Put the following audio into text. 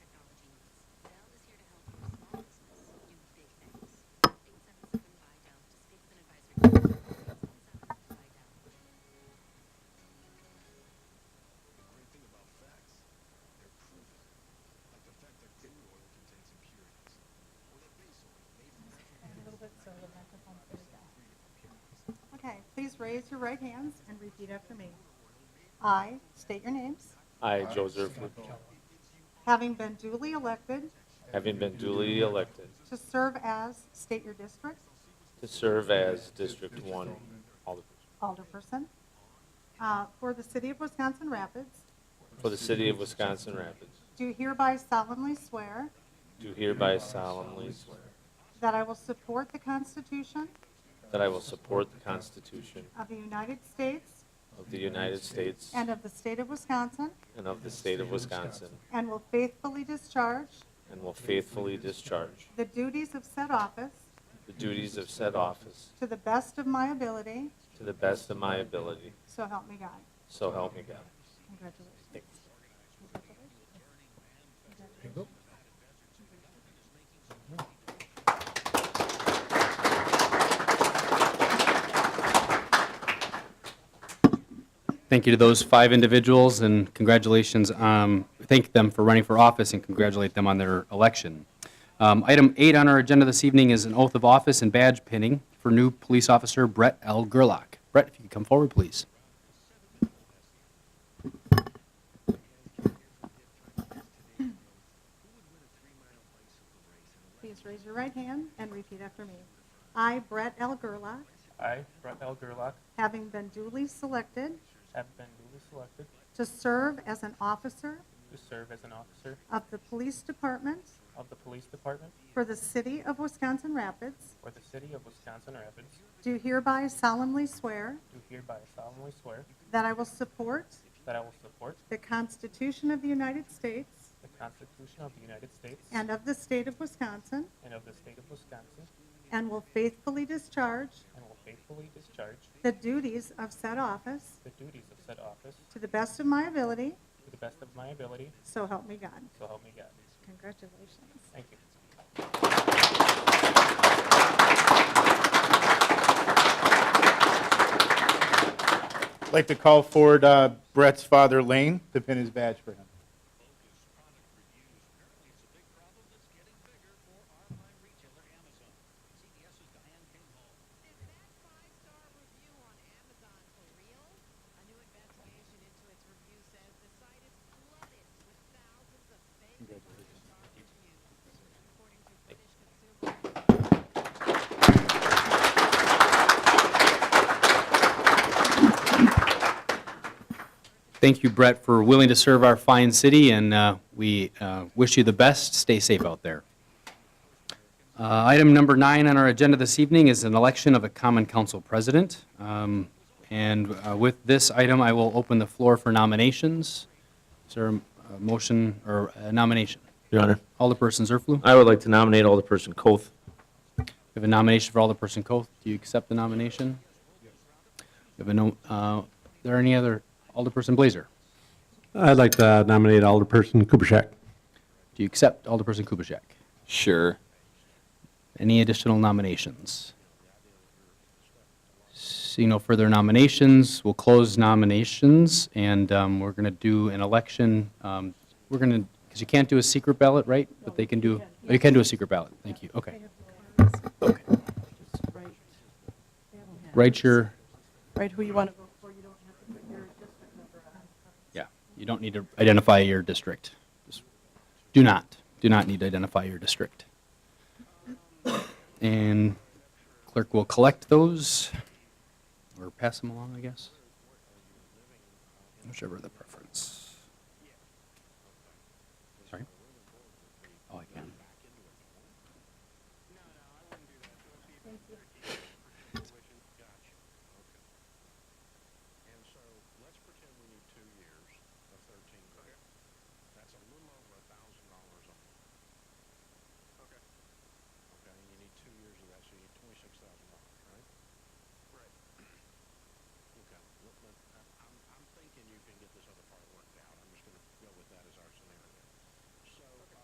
raise your right hands and repeat after me. I state your names, I, Joseph Martello, Martello, having been duly elected having been duly elected to serve as, state your district, to serve as District 1 Alderperson alderperson, uh, for the city of Wisconsin Rapids, for the city of Wisconsin Rapids, do hereby solemnly swear do hereby solemnly swear that I will support the Constitution that I will support the Constitution of the United States of the United States and of the state of Wisconsin, and of the state of Wisconsin, and will faithfully discharge and will faithfully discharge the duties of said office the duties of said office to the best of my ability, to the best of my ability, so help me God. so help me God. Congratulations. There you go. Thank you to those five individuals, and congratulations, um, thank them for running for office and congratulate them on their election. Um, Item eight on our agenda this evening is an oath of office and badge pinning for new police officer Brett L. Gerlach. Brett, if you could come forward, please. Please raise your right hand and repeat after me. I, Brett L. Gerlach, I, Brett L. Gerlach, having been duly selected have been duly selected to serve as an officer to serve as an officer of the Police Department of the Police Department for the City of Wisconsin Rapids, for the City of Wisconsin Rapids, do hereby solemnly swear do hereby solemnly swear that I will support that I will support the Constitution of the United States the Constitution of the United States and of the State of Wisconsin, and of the State of Wisconsin, and will faithfully discharge and will faithfully discharge the duties of said office the duties of said office to the best of my ability, to the best of my ability, so help me God. so help me God. Congratulations. Thank you. I'd like to call forward uh, Brett's father, Lane, to pin his badge for him. Is that five-star review on Amazon for real? A new investigation into its review says the site is flooded with thousands of fake five-star reviews, according to British consumers. Thank you, Brett, for willing to serve our fine city, and uh, we uh, wish you the best. Stay safe out there. Uh, Item number nine on our agenda this evening is an election of a common council president. Um, And uh, with this item, I will open the floor for nominations. Is there a motion or a nomination? Your Honor, Alderperson Zerflu, we I would like to nominate Alderperson Coth. have a nomination for Alderperson Coth. Do you accept the nomination? We have a no- uh, Are there any other, Alderperson Blazer? I'd like to nominate Alderperson Kubaschak. Do you accept Alderperson Kubaschak? Sure. Any additional nominations? See no further nominations, we'll close nominations, and um, we're going to do an election. um, We're going to, because you can't do a secret ballot, right? But they can do, oh, you can do a secret ballot, thank you, okay. Write your, Right, who you want to vote for, you don't have to yeah, you don't need to identify your district. Just Do not, do not need to identify your district. And clerk will collect those, or pass them along, I guess. Whichever the preference. Oh,